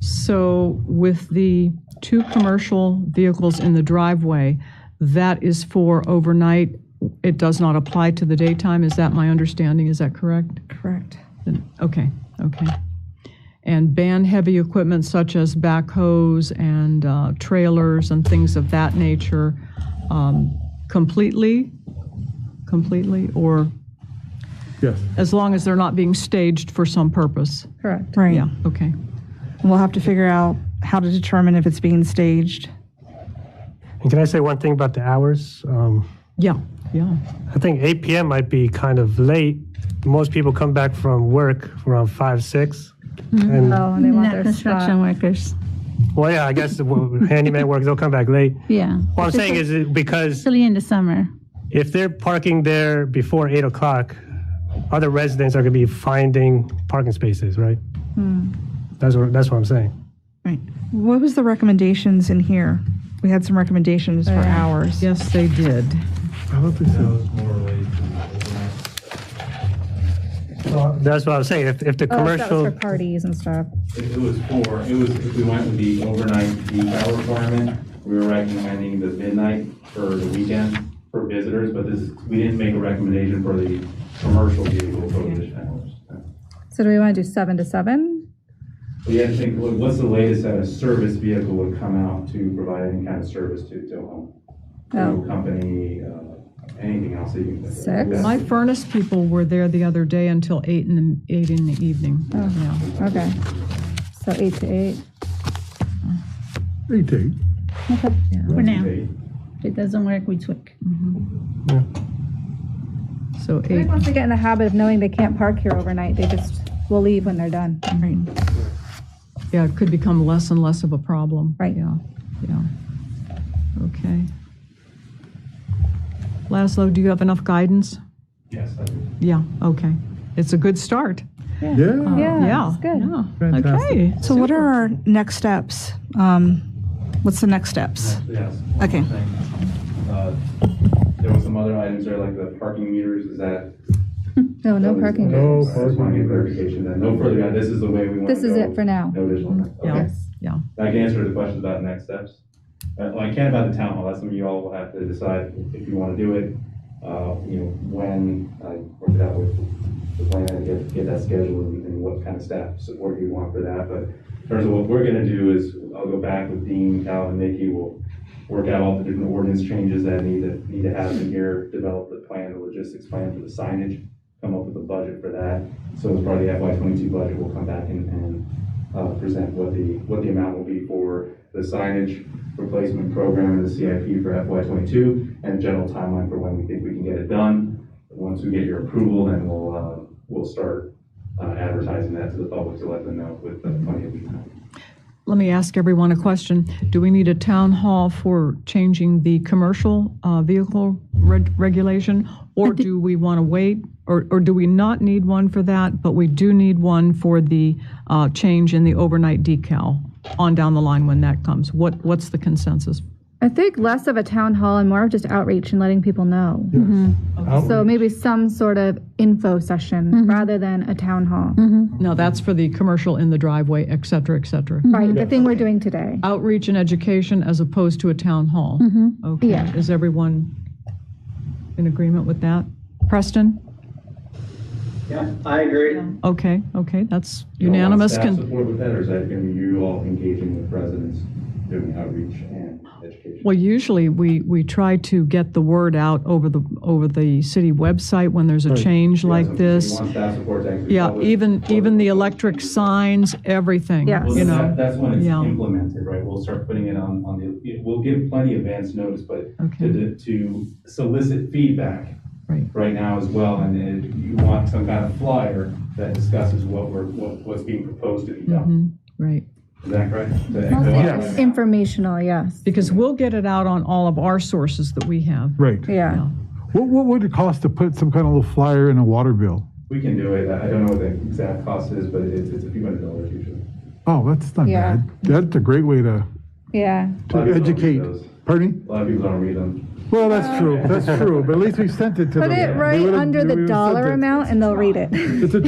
So with the two commercial vehicles in the driveway, that is for overnight. It does not apply to the daytime. Is that my understanding? Is that correct? Correct. Then- Okay, okay. And ban heavy equipment such as backhoes and uh, trailers and things of that nature um, completely? Completely? Or Yes. as long as they're not being staged for some purpose? Correct. Right. Yeah, okay. And we'll have to figure out how to determine if it's being staged. And can I say one thing about the hours? Um, Yeah, yeah. I think 8 p.m. might be kind of late. Most people come back from work around 5, 6. And, Oh, they want Not their construction spot. workers, well, yeah, I guess the wo- handyman work, they'll come back late. yeah. What I'm saying is it- because Especially in the summer. if they're parking there before 8 o'clock, other residents are going to be finding parking spaces, right? Hmm. That's what, that's what I'm saying. Right. What was the recommendations in here? We had some recommendations for hours. Yes, they did. That was more related to the overnight. That's what I'm saying. If, if the Oh, that was commercial, for parties and stuff. It it was for, it was, if we went with the overnight peak hour requirement, we were recommending the midnight for the weekend for visitors, but this, is- we didn't make a recommendation for the commercial vehicle prohibition hours. So do we want to do seven to seven? We had to think, what- what's the latest that a service vehicle would come out to provide any kind of service to, to a home? To Oh. a company, uh, anything else that you can. think of. Six? Yeah. My furnace people were there the other day until eight in the, eight in the evening. Oh. Yeah. Okay. So eight to eight. Eight to eight. For now. Eight. If it doesn't work, we tweak. So I eight, think once they get in the habit of knowing they can't park here overnight, they just will leave when they're done. Right. yeah, it could become less and less of a problem. Right. Yeah, yeah. Okay. Laszlo, do you have enough guidance? Yes, I do. Yeah, okay. It's a good start. Oh. Yeah. Yeah. Yeah, it's good. yeah. Fantastic. Okay. So what are our next steps? Um, What's the next steps? Yes. Okay. Uh, There was some other items there, like the parking meters, is that? No, no parking. No. I just want to get clarification that, no further, guide. this is the way we want to This is go. it for now. Mm-hmm. No additional. Yeah. Okay. Yeah. I can answer the questions about next steps. Uh, well, I can about the town hall, that's something you all will have to decide if you want to do it. Uh, you know, when, I worked out with the plan, and get, get that scheduled and and what kind of staff support you want for that. But in terms of what we're gonna do is, I'll go back with Dean, Calvin, Nikki, we'll work out all the different ordinance changes that need to, need to happen here, develop the plan, the logistics plan for the signage, come up with a budget for that. So as part of the FY twenty-two budget, we'll come back and, and uh, present what the, what the amount will be for the signage replacement program and the CIP for FY twenty-two, and general timeline for when we think we can get it done. Once we get your approval, then we'll, uh, we'll start uh, advertising that to the public to let them know with uh, plenty of time. Let me ask everyone a question. Do we need a town hall for changing the commercial uh, vehicle reg- regulation? Or do we want to wait? Or or do we not need one for that, but we do need one for the uh, change in the overnight decal on down the line when that comes? What What's the consensus? I think less of a town hall and more of just outreach and letting people know. So maybe some sort of info session rather than a town hall. No, that's for the commercial in the driveway, et cetera, et cetera. Right, the thing we're doing today. Outreach and education as opposed to a town hall? Okay, Mm-hmm. Yeah. is everyone in agreement with that? Preston? Yeah, I agree. Okay, okay, that's unanimous. Staff Can, support with that, or is that going to be you all engaging with residents, doing outreach and education? well, usually we, we try to get the word out over the, over the city website when there's a change So like if you this. want staff support to actually Yeah, publish- even, even the electric Well, signs, everything, Yes. you then know? that- That's when it's yeah. implemented, right? We'll start putting it on, on the, we'll give plenty of advance notice, but Okay. to, to solicit feedback Right. right now as well, and then you want some kind of flyer that discusses what we're, what, what's being proposed to be done. Mhm, Right, Is that correct? To echo Mostly out just right now. Informational, yes. because we'll get it out on all of our sources that we have. Right. Yeah. What, what would it cost to put some kind of little flyer in a water bill? We can do it. I I don't know what the exact cost is, but it's, it's a few hundred dollars usually. Oh, that's not Yeah. bad. That's a great way to, Yeah. A to lot of people don't read educate. those. Pardon me? A lot of people don't read them. Well, that's true. That's true. But at least we sent it to them. Put it They right would've- under we the would've sent dollar it. amount and they'll read it. It's a